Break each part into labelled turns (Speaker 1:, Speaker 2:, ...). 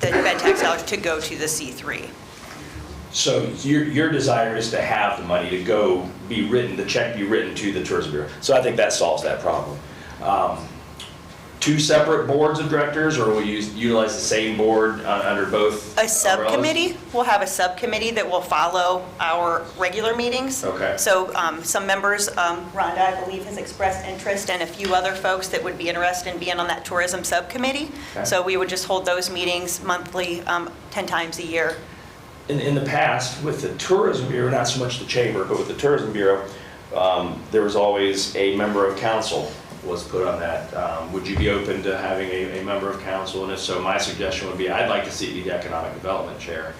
Speaker 1: that tax dollars to go to the C3.
Speaker 2: So your, your desire is to have the money to go be written, the check be written to the tourism bureau. So I think that solves that problem. Um, Two separate boards of directors, or will you utilize the same board uh, under both?
Speaker 1: A
Speaker 2: umbrellas?
Speaker 1: subcommittee, we'll have a subcommittee that will follow our regular meetings.
Speaker 2: Okay.
Speaker 1: So um, some members, um, Rhonda, I believe, has expressed interest, and a few other folks that would be interested in being on that tourism subcommittee.
Speaker 2: Okay.
Speaker 1: So we would just hold those meetings monthly, um, 10 times a year.
Speaker 2: In, in the past, with the tourism bureau, not so much the chamber, but with the tourism bureau, um, there was always a member of council was put on that. Um, Would you be open to having a, a member of council? And if so, my suggestion would be, I'd like to see the economic development chair.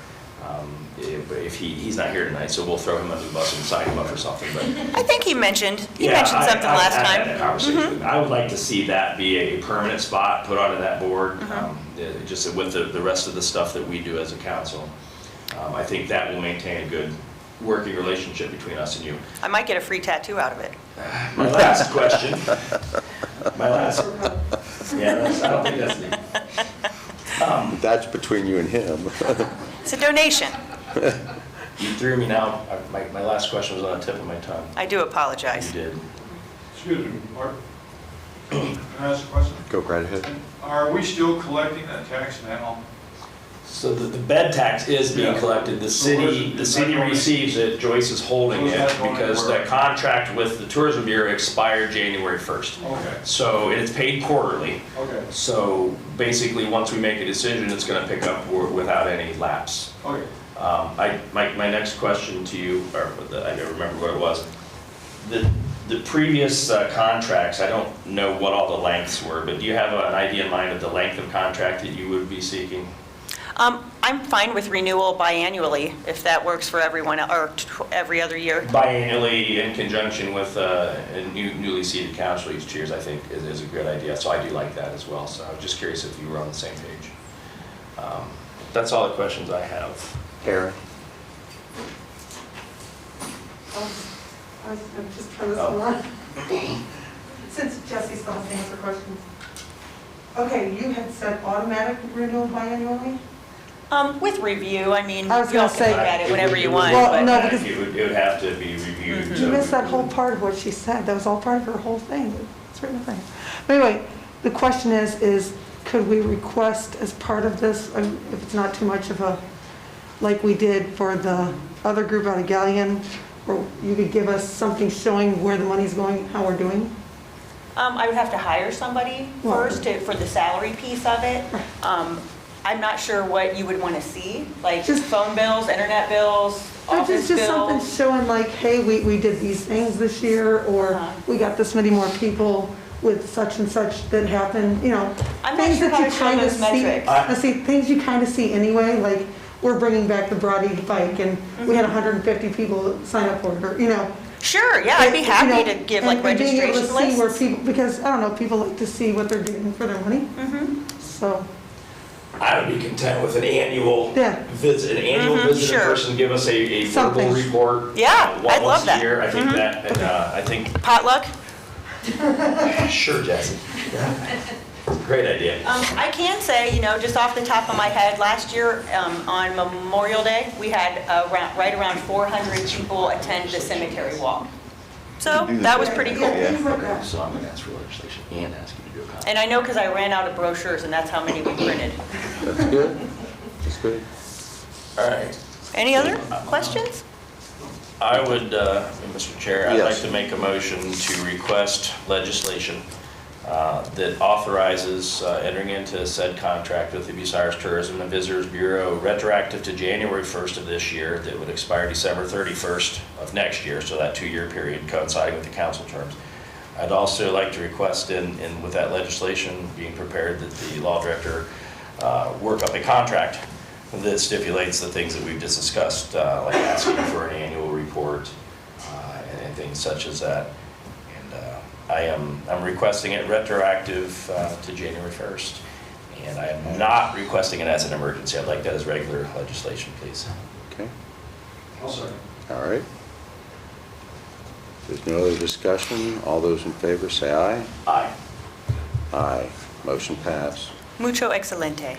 Speaker 2: Um, If, if he, he's not here tonight, so we'll throw him under the bus and sign him up or something, but.
Speaker 1: I think he mentioned, he
Speaker 2: Yeah,
Speaker 1: mentioned
Speaker 2: I-
Speaker 1: something
Speaker 2: I-
Speaker 1: last
Speaker 2: I had
Speaker 1: time. Mm-hmm.
Speaker 2: that conversation with- I would like to see that be a permanent spot put onto that board,
Speaker 1: Mm-hmm.
Speaker 2: um, uh, just with the, the rest of the stuff that we do as a council. Um, I think that will maintain a good working relationship between us and you.
Speaker 1: I might get a free tattoo out of it.
Speaker 2: My last question, my last, yeah, that's- I don't think that's, the-
Speaker 3: That's between you and him.
Speaker 1: It's a donation.
Speaker 2: you threw me now, I- my, my last question was on the tip of my tongue.
Speaker 1: I do
Speaker 2: You
Speaker 1: apologize.
Speaker 2: did.
Speaker 4: Excuse me, Mark. Can I ask a question?
Speaker 3: Go right ahead.
Speaker 4: Are we still collecting that tax now?
Speaker 2: So the, the bed tax is being
Speaker 4: Yeah.
Speaker 2: collected, the
Speaker 4: So where's
Speaker 2: city,
Speaker 4: it-
Speaker 2: the
Speaker 4: is
Speaker 2: city
Speaker 4: that going-
Speaker 2: receives it, Joyce is holding
Speaker 4: So is
Speaker 2: it,
Speaker 4: that going
Speaker 2: because
Speaker 4: where?
Speaker 2: the contract with the tourism bureau expired January first.
Speaker 4: Okay,
Speaker 2: So it's paid quarterly,
Speaker 4: okay,
Speaker 2: so basically, once we make a decision, it's gonna pick up wi- without any lapse.
Speaker 4: okay.
Speaker 2: Um, I, my, my next question to you, or the- I don't remember what it was, the, the previous uh, contracts, I don't know what all the lengths were, but do you have an idea in mind of the length of contract that you would be seeking?
Speaker 1: Um, I'm fine with renewal biannually, if that works for everyone, or tw- every other year.
Speaker 2: biannually in conjunction with uh, a new- newly seated council each year, I think, is- is a good idea. So I do like that as well. So I was just curious if you were on the same page. Um, That's all the questions I have.
Speaker 3: Aaron?
Speaker 5: Oh, I was, I'm just trying to
Speaker 2: Oh.
Speaker 5: smile. Since Jesse still has to answer questions. Okay, you had said automatic renewal biannually?
Speaker 1: Um, with review, I mean, you
Speaker 5: I
Speaker 1: all
Speaker 5: was
Speaker 1: can
Speaker 5: gonna
Speaker 1: look
Speaker 5: say-
Speaker 1: at it whenever you want,
Speaker 5: Well,
Speaker 1: but
Speaker 5: no,
Speaker 2: Automatic,
Speaker 5: because- Mm-hmm.
Speaker 2: It would, it would have to be reviewed.
Speaker 5: You
Speaker 2: so-
Speaker 5: missed that whole part of what she said, that was all part of her whole thing, it's written thing. But anyway, the question is, is could we request as part of this, um, if it's not too much of a, like we did for the other group out of Galleon, or you could give us something showing where the money's going, how we're doing?
Speaker 1: um, I would have to hire somebody
Speaker 5: Well-
Speaker 1: first to, for the salary piece of it. Um, I'm not sure what you would want to see, like
Speaker 5: Just-
Speaker 1: phone bills, internet bills,
Speaker 5: Or
Speaker 1: office
Speaker 5: just, just something
Speaker 1: bills.
Speaker 5: showing like, hey, we, we did these things this year, or
Speaker 1: Uh-huh.
Speaker 5: we got this many more people with such and such that happened, you know.
Speaker 1: I'm not
Speaker 5: things
Speaker 1: sure
Speaker 5: that
Speaker 1: how
Speaker 5: you
Speaker 1: to show
Speaker 5: kinda
Speaker 1: those
Speaker 5: see-
Speaker 1: metrics.
Speaker 2: I-
Speaker 5: I see, things you kind of see anyway, like, we're bringing back the Broad Eagle bike, and we
Speaker 1: Mm-hmm.
Speaker 5: had 150 people sign up for it, or, you know.
Speaker 1: Sure, yeah, I'd be
Speaker 5: you
Speaker 1: happy
Speaker 5: know,
Speaker 1: to give
Speaker 5: and-
Speaker 1: like
Speaker 5: and being able to
Speaker 1: registration
Speaker 5: see where
Speaker 1: lists.
Speaker 5: people- Because, I don't know, people like to see what they're getting for their money,
Speaker 1: Mhm.
Speaker 5: so,
Speaker 2: I would be content with an annual
Speaker 5: Yeah.
Speaker 2: visit, an annual
Speaker 1: Mhm,
Speaker 2: visit in
Speaker 1: sure.
Speaker 2: person, give us a, a verbal
Speaker 5: Something.
Speaker 2: report.
Speaker 1: Yeah,
Speaker 2: uh,
Speaker 1: I'd love
Speaker 2: Once
Speaker 1: that. Mm-hmm.
Speaker 2: a year, I think that, and uh, I think
Speaker 1: Potluck?
Speaker 2: Sure, Jesse. Great idea.
Speaker 1: Um, I can say, you know, just off the top of my head, last year, um, on Memorial Day, we had uh, around, right around 400 people attend the cemetery walk. So that was pretty cool.
Speaker 5: Yeah, things like that.
Speaker 2: So I'm gonna ask for legislation and ask you to do a copy.
Speaker 1: And I know because I ran out of brochures, and that's how many we printed.
Speaker 3: That's good. That's good.
Speaker 2: All right,
Speaker 1: Any other questions?
Speaker 2: I would, uh, Mr. Chair, I'd like
Speaker 3: Yes.
Speaker 2: to make a motion to request legislation uh, that authorizes uh, entering into said contract with the Bucyrus Tourism and Visitors Bureau retroactive to January 1st of this year that would expire December 31st of next year, so that two-year period coinciding with the council terms. I'd also like to request in, in, with that legislation being prepared, that the law director uh, work up a contract that stipulates the things that we've just discussed, uh, like asking for an annual report uh, and and things such as that. And uh, I am, I'm requesting it retroactive uh, to January 1st. And I am not requesting it as an emergency. I'd like that as regular legislation, please.
Speaker 3: Okay,
Speaker 4: I'll second.
Speaker 3: all right. There's no other discussion. All those in favor say aye.
Speaker 2: Aye.
Speaker 3: Aye. Motion passed.
Speaker 1: Mucho excelente.